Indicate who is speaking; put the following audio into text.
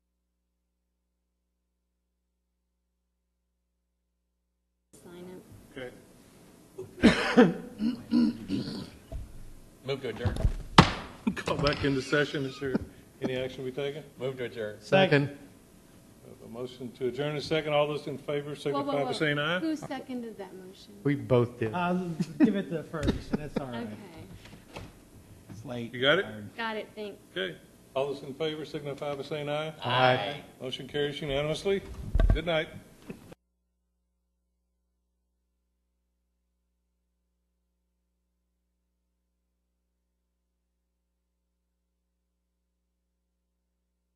Speaker 1: Move to adjourn.
Speaker 2: Call back into session. Is there any action we taking?
Speaker 1: Move to adjourn.
Speaker 3: Second.
Speaker 2: A motion to adjourn is second. All those in favor
Speaker 4: Whoa, whoa,
Speaker 2: signify by
Speaker 4: whoa.
Speaker 2: saying aye.
Speaker 4: Who seconded that motion?
Speaker 3: We both did.
Speaker 5: I'll give it to Ferguson, that's all right.
Speaker 4: Okay,
Speaker 5: It's late.
Speaker 2: You got it?
Speaker 4: got it, thanks.
Speaker 2: Okay. All those in favor signify by saying aye.
Speaker 3: Aye.
Speaker 2: Motion carries unanimously. Good night.